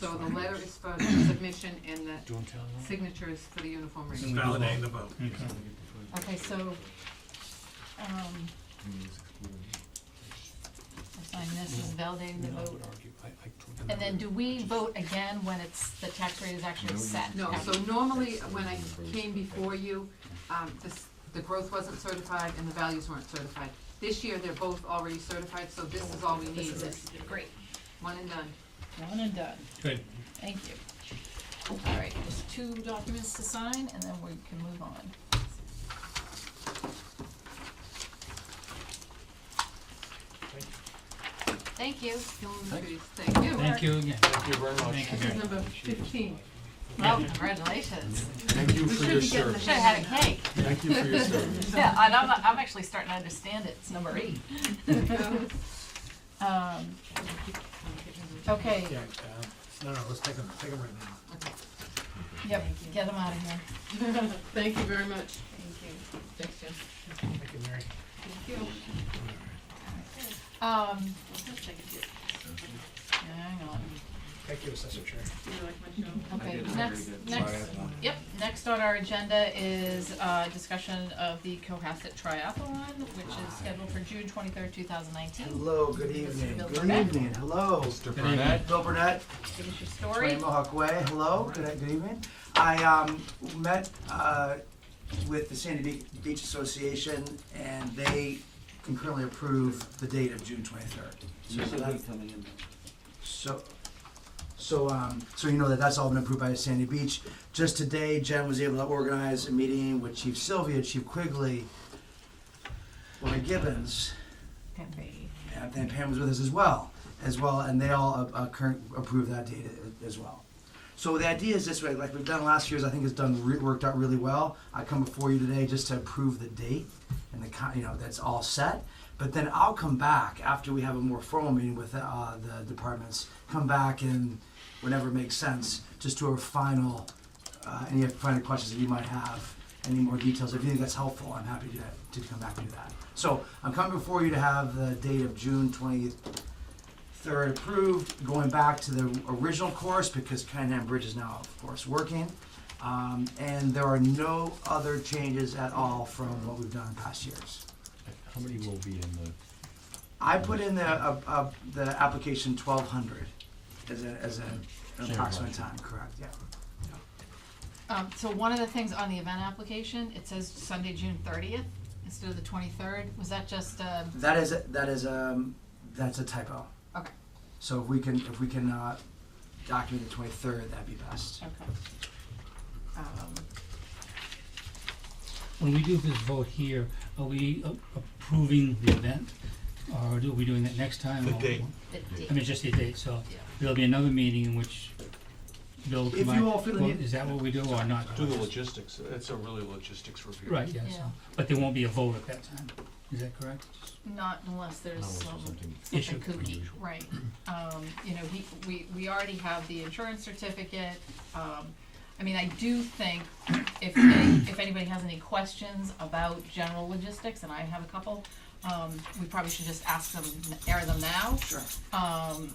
the letter is for submission and the Do you want to tell them? signature is for the uniform It's rating. Validating the vote. Okay. Okay, so, um, I sign this as validating the No, I vote. would argue, I, I told them. And then do we vote again when it's, the tax rate is actually set? No, so normally, when I came before you, um, this, the growth wasn't certified and the values weren't certified. This year, they're both already certified, so this is all we need, This is it, great, one and done. one and done, Good. thank you. All right, there's two documents to sign, and then we can move on. Thank you. Thank you. Thank you. Thank you again. Thank you very much. Thank This is you. number fifteen. Well, congratulations. Thank you We for should your be getting the service. Should've had a cake. Thank you for your service. Yeah, and I'm, I'm actually starting to understand it, it's number eight. Um, okay, Yeah, uh, no, no, let's take them, take them right now. yep, get them out of here. Thank you very much. Thank you. Thanks, Jim. Thank you, Mary. Thank you. Um, You hang on. Thank you, Assessor Chair. like my show? Okay, next, next, yep, next on our agenda is, uh, discussion of the Cohasset Triathlon, which is scheduled for June twenty-third, two thousand nineteen. Hello, good evening. Bill Good Burnett. evening, hello. Mr. Burnett? Bill Burnett, Give us your Twenty story. Mohawk Way, hello, good, good evening. I, um, met, uh, with the Sandy Be- Beach Association and they concurrently approved the date of June twenty-third. So that's, coming in. so, so, um, so you know that that's all been approved by Sandy Beach. Just today, Jen was able to organize a meeting with Chief Sylvia, Chief Quigley, Lori Gibbons, and then Pam was with us as well, as well, and they all uh, uh, current approved that data as well. So the idea is this way, like we've done last year's, I think it's done re- worked out really well. I come before you today just to approve the date and the con- you know that's all set. But then I'll come back after we have a more formal meeting with uh, the departments. Come back and whenever it makes sense, just do a final uh, any final questions that you might have, any more details. If you think that's helpful, I'm happy to, to come back and do that. So I'm coming before you to have the date of June 23rd approved, going back to the original course because Kennington Bridge is now, of course, working. Um, and there are no other changes at all from what we've done in past years. How many will be in the? I put in the, uh, uh, the application 1200 as a, as a, an Same approximate question. time, correct, yeah. Um, so one of the things on the event application, it says Sunday, June thirtieth, instead of the twenty-third, was that just, um, That is, that is, um, that's a typo. okay, So if we can, if we can, uh, document the twenty-third, that'd be best. okay. Um, When we do this vote here, are we a- approving the event? Or do we doing that next time? The or- date. the I mean, date, just the date, so Yeah. there'll be another meeting in which Bill If come you out- all feel the well, need- Is that what we do or not? Do the logistics, it's a really logistics review. Right, yeah, Yeah. so, but there won't be a vote at that time, is that correct? not unless there's some. Issue. something kooky, right. Um, you know, he, we, we already have the insurance certificate. Um, I mean, I do think if, any- if anybody has any questions about general logistics, and I have a couple, um, we probably should just ask them, air them now. Sure. Um,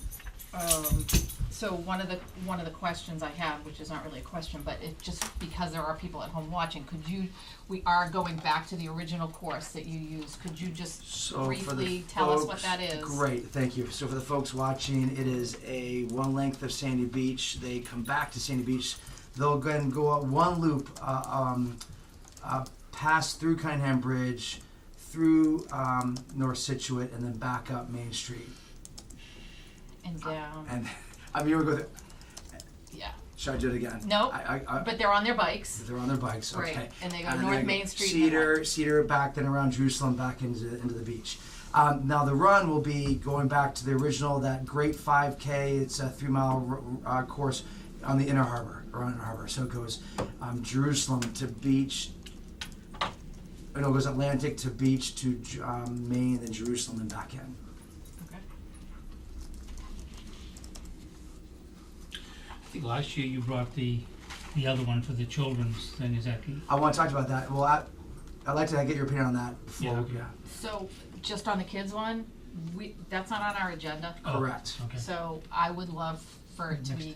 um, so one of the, one of the questions I have, which is not really a question, but it, just because there are people at home watching, could you, we are going back to the original course that you used, could you just So for the Briefly tell us what folks- that is. Great, thank you. So for the folks watching, it is a one length of Sandy Beach. They come back to Sandy Beach. They'll go and go out one loop, uh, um, uh, pass through Cunningham Bridge, through um, North Situate, and then back up Main Street. and down? And I mean, you were going. Yeah, Should I do it again? Nope. I, I, I, but they're on their bikes, they're on their bikes. Okay. right? And they go And then North I Main go Street. and then Cedar, Cedar back, then around Jerusalem, back into into the beach. Um, now the run will be going back to the original, that great 5K. It's a three mile uh, course on the Inner Harbor, around Inner Harbor. So it goes um, Jerusalem to beach. oh, No, it goes Atlantic to beach to J- um, Maine, then Jerusalem, and back in. what? Okay. I think last year you brought the, the other one for the children's thing, is that, I want to talk about that. Well, I, I'd like to get your opinion on that before. Yeah. So, just on the kids one, we, that's not on our agenda, Oh. Correct. okay. so I would love for it to Next be